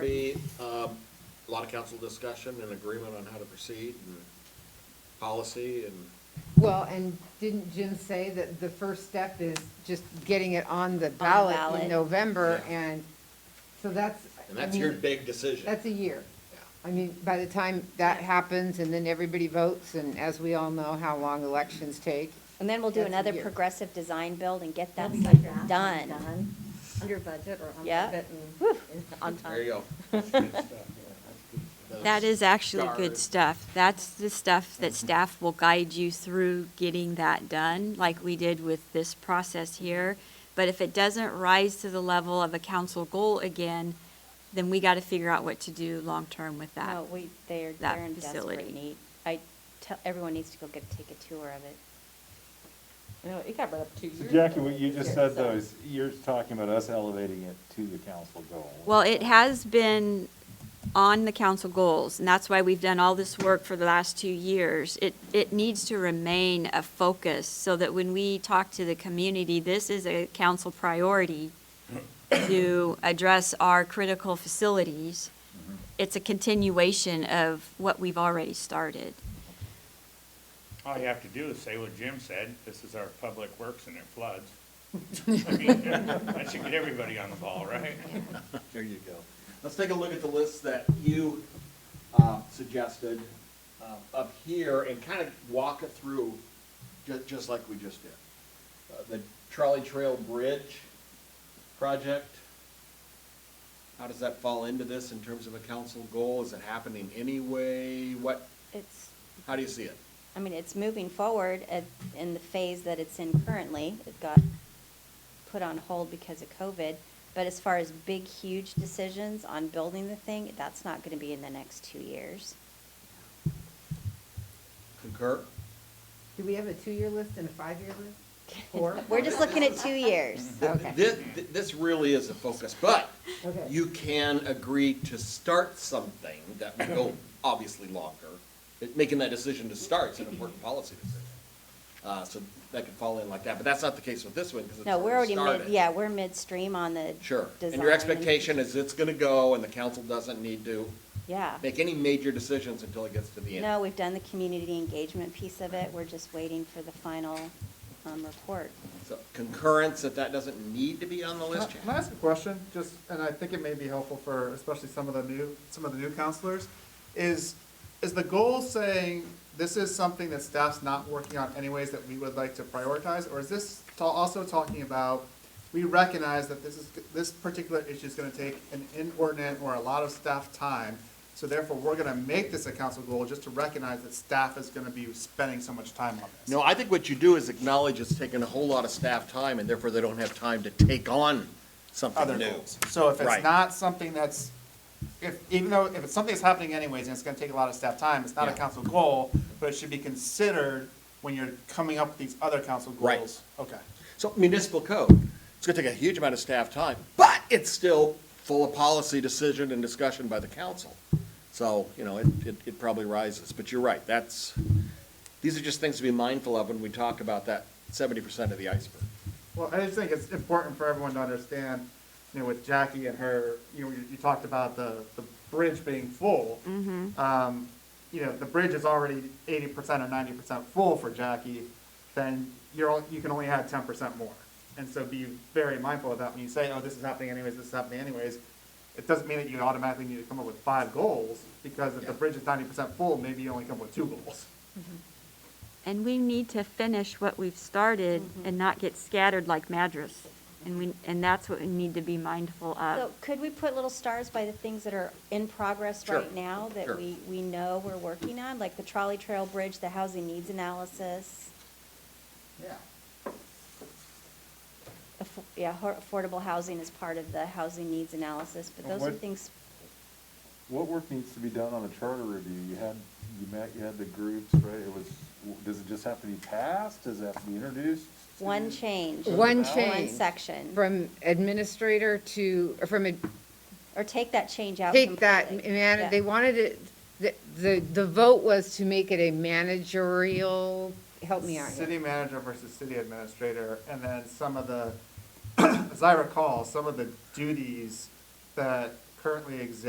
Be, um, a lot of council discussion and agreement on how to proceed and policy and, Well, and didn't Jim say that the first step is just getting it on the ballot ballot. in November? Yeah. And so that's, and I that's your mean, big decision. that's a year. Yeah. I mean, by the time that happens and then everybody votes, and as we all know how long elections take, And then we'll do That's a another year. progressive design build and get that That's sucker like that, done. Under budget or on Yeah. budget and on There you time. go. That is actually Start. good stuff. That's the stuff that staff will guide you through getting that done, like we did with this process here. But if it doesn't rise to the level of a council goal again, then we got to figure out what to do long-term with that. No, we, they're, that they're in desperate facility. need. I tell, everyone needs to go get, take a tour of it. You know, it got brought up two years. So Jackie, ago. what you just Yeah, so- said though is, you're talking about us elevating it to the council goal. Well, it has been on the council goals, and that's why we've done all this work for the last two years. It, it needs to remain a focus, so that when we talk to the community, this is a council priority to address our critical facilities. It's a continuation of what we've already started. All you have to do is say what Jim said, this is our public works and it floods. I mean, That should get everybody on the ball, right? There you go. Let's take a look at the list that you, uh, suggested, uh, up here and kind of walk it through, ju- just like we just did. Uh, The Trolley Trail Bridge project. How does that fall into this in terms of a council goal? Is it happening anyway? What, It's, how do you see it? I mean, it's moving forward at, in the phase that it's in currently. It got put on hold because of COVID. But as far as big, huge decisions on building the thing, that's not gonna be in the next two years. Concur? do we have a two-year list and a five-year list? Four? We're just looking at two years. Okay. This, this really is a focus, but Okay. you can agree to start something that will go obviously longer. It- Making that decision to start is an important policy decision. Uh, so that could fall in like that, but that's not the case with this one, because it's No, we're already already mid, started. yeah, we're midstream on the Sure, and design your expectation is it's gonna go, and the council doesn't need to Yeah. make any major decisions until it gets to the end. No, we've done the community engagement piece of it. We're just waiting for the final um, report. So concurrence that that doesn't need to be on the list. Can I ask a question, just, and I think it may be helpful for especially some of the new, some of the new counselors, is, is the goal saying, this is something that staff's not working on anyways that we would like to prioritize, or is this ta- also talking about, we recognize that this is, this particular issue is gonna take an inordinate or a lot of staff time, so therefore, we're gonna make this a council goal just to recognize that staff is gonna be spending so much time on this. No, I think what you do is acknowledge it's taken a whole lot of staff time, and therefore they don't have time to take on other something new. goals. So if Right. it's not something that's, if, even though, if it's something that's happening anyways, and it's gonna take a lot of staff time, it's not a Yeah. council goal, but it should be considered when you're coming up with these other council Right. goals. Okay. So municipal code, it's gonna take a huge amount of staff time, but it's still full of policy decision and discussion by the council. So, you know, it, it, it probably rises, but you're right, that's, these are just things to be mindful of when we talk about that seventy percent of the iceberg. Well, I just think it's important for everyone to understand, you know, with Jackie and her, you know, you, you talked about the, the bridge being full. Um, you know, the bridge is already eighty percent or ninety percent full for Jackie, then you're, all- you can only add ten percent more. And so be very mindful of that when you say, oh, this is happening anyways, this is happening anyways. It doesn't mean that you automatically need to come up with five goals, because if the bridge is ninety percent full, maybe you only come up with two goals. And we need to finish what we've started and not get scattered like Madras. And we, and that's what we need to be mindful Uh, of. So could we put little stars by the things that are in progress Sure, right now sure. that we, we know we're working on? Like the trolley trail bridge, the housing needs analysis, Yeah. aff- yeah, ho- affordable housing is part of the housing needs analysis, but those are What- things, What work needs to be done on the charter review? You had, you met, you had the groups, right? It was, does it just have to be passed? Does it have to be introduced? Mm-hmm. one change. One One change. section, From administrator to, or from ad- or take that change out take that, completely. man, Oh, Yeah. they wanted it, the, the, the vote was to make it a managerial, help me out here. City manager versus city administrator, and then some of the, as I recall, some of the duties that currently exist